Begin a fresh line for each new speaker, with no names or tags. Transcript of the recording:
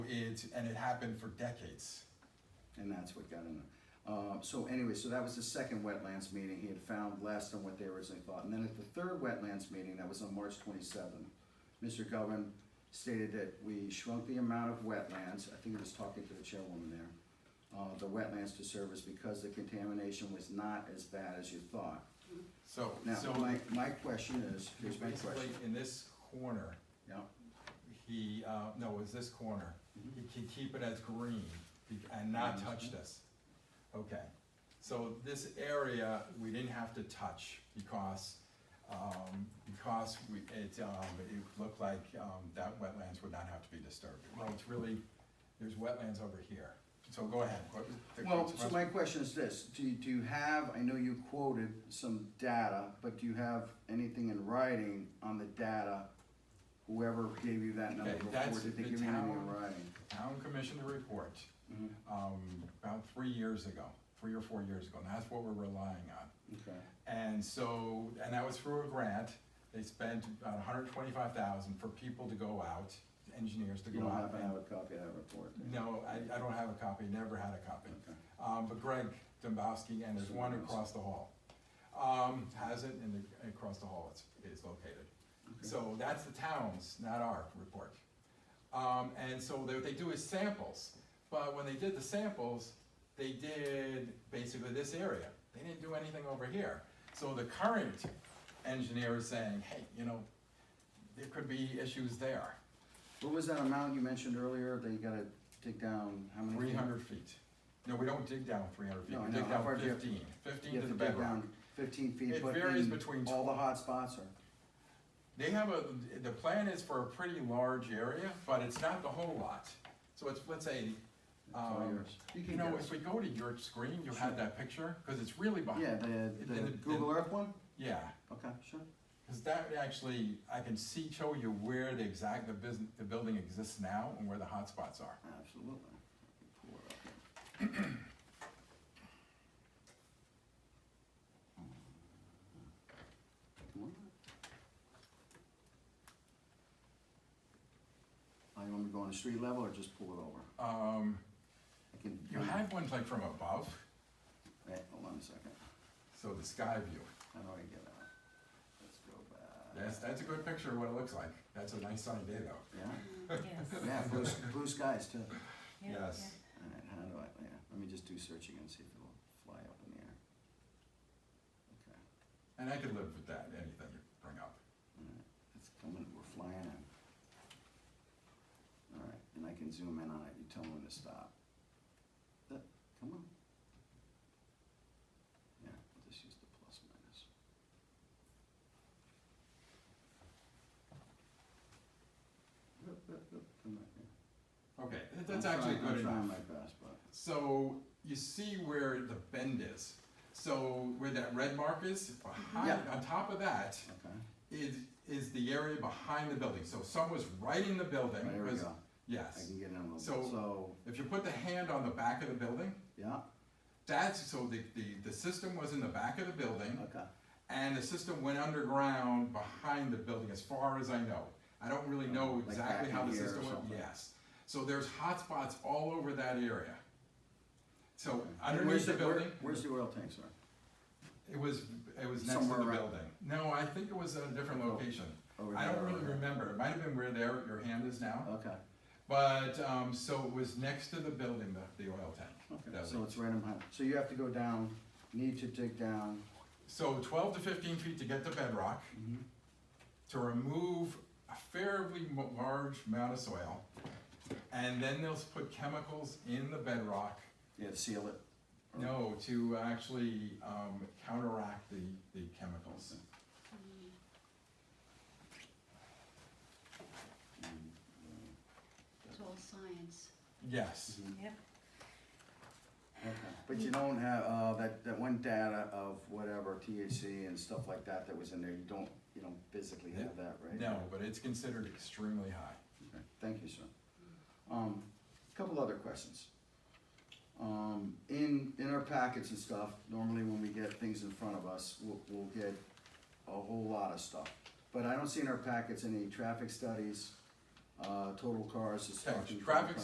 it's, and it happened for decades.
And that's what got in there. Uh, so anyway, so that was the second wetlands meeting, he had found less than what they originally thought. And then at the third wetlands meeting, that was on March twenty-seventh, Mr. Govan stated that we shrunk the amount of wetlands, I think he was talking to the chairwoman there, uh, the wetlands to service because the contamination was not as bad as you thought.
So,
Now,
so
my, my question is, here's my
basically,
question,
in this corner,
yeah,
he, uh, no, it was this corner,
Mm-hmm.
he can keep it as green be- and not touch this. Okay, so this area, we didn't have to touch because, um, because we, it, um, it looked like, um, that wetlands would not have to be disturbed. Well, it's really, there's wetlands over here, so go ahead. What was the-
Well, so my question is this, do you, do you have, I know you quoted some data, but do you have anything in writing on the data? Whoever gave you that number
Okay,
before,
that's
did they
the
give you anything in
town.
writing?
Town commissioned a report,
Mhm,
um, about three years ago, three or four years ago, and that's what we're relying on.
Okay,
And so, and that was through a grant, they spent about hundred twenty-five thousand for people to go out, engineers to
you
go
don't
out.
happen to have
and-
a copy of that report? do you?
No, I, I don't have a copy, never had a copy.
Okay.
Um, but Greg Dombowski, and there's one across the hall, um, has it, and the- across the hall it's, it's located. So that's the town's, not our report. Um, and so they- what they do is samples, but when they did the samples, they did basically this area. They didn't do anything over here. So the current engineer is saying, hey, you know, there could be issues there,
What was that amount you mentioned earlier, that you gotta dig down, how many?
three hundred feet. No, we don't dig down three hundred feet,
No,
we
no,
dig
how
down
far do you-
fifteen. Fifteen
You
to
have
the
to dig
bedrock.
down fifteen feet,
It
but
varies
in
between
all the hot spots are,
They have a, the plan is for a pretty large area, but it's not the whole lot. So it's, let's say,
it's all
um,
yours.
you
can
know,
go.
if we go to your screen, you
Sure.
have that picture, cause it's really
Yeah,
behind,
the,
in
the
the-
Google Earth one,
yeah.
okay, sure,
Cause that would actually, I can see, show you where the exact, the business, the building exists now and where the hotspots are.
absolutely. Pull it up here. Come on. Oh, you want me to go on the street level or just pull it over?
Um,
I can.
you had ones like from above,
Wait, hold on a second,
so the sky view.
how do I get out? Let's go back.
That's, that's a good picture of what it looks like. That's a nice sunny day though.
Yeah,
Yes.
yeah, blue, s- blue skies too.
Yeah,
Yes.
Alright, how do I, yeah, let me just do search again, see if it'll fly up in the air. Okay,
And I could live with that, anything you bring up.
alright, it's coming, we're flying in. Alright, and I can zoom in on it, you tell me when to stop. That, come on. Yeah, I'll just use the plus minus. Look, look, look, come back here.
Okay, that- that's
I'm
actually
trying-
good enough.
I'm trying my best, but.
So you see where the bend is. So where that red mark is, behind,
Yeah.
on top of that
Okay,
is, is the area behind the building. So someone's right in the building.
there we
because-
go. I
Yes.
can get in a little bit.
So-
So,
If you put the hand on the back of the building,
yeah,
that's, so the, the, the system was in the back of the building
okay.
and the system went underground behind the building as far as I know. I don't really know
Like
exactly
back
how
in
the
here or
system went,
something.
yes. So there's hotspots all over that area. So
Where's
underneath the
where-
building.
Where's the oil tank, sir?
It was, it was next to the
Somewhere around- Oh,
building. No, I think it was at a different location.
Over
I don't
there,
really
or-
remember. It might have been where there, your hand is now.
Okay,
But, um, so it was next to the building, the, the oil tank.
okay,
that
so
leak.
it's right in behind, so you have to go down, need to dig down.
So twelve to fifteen feet to get to bedrock,
Mhm.
to remove a fairly mo- large amount of soil. And then they'll s- put chemicals in the bedrock,
Yeah, seal it.
no, to actually, um, counteract the, the chemicals.
Mm,
It's all science.
Yes,
mhm.
Yep.
Okay. But you don't have, uh, that, that one data of whatever THC and stuff like that that was in there, you don't, you don't physically have that, right?
no, but it's considered extremely high.
Okay, Thank you, sir. Um, couple other questions. Um, in, in our packets and stuff, normally when we get things in front of us, we'll, we'll get a whole lot of stuff. But I don't see in our packets any traffic studies, uh, total cars,
Okay,
destruction.
Traffic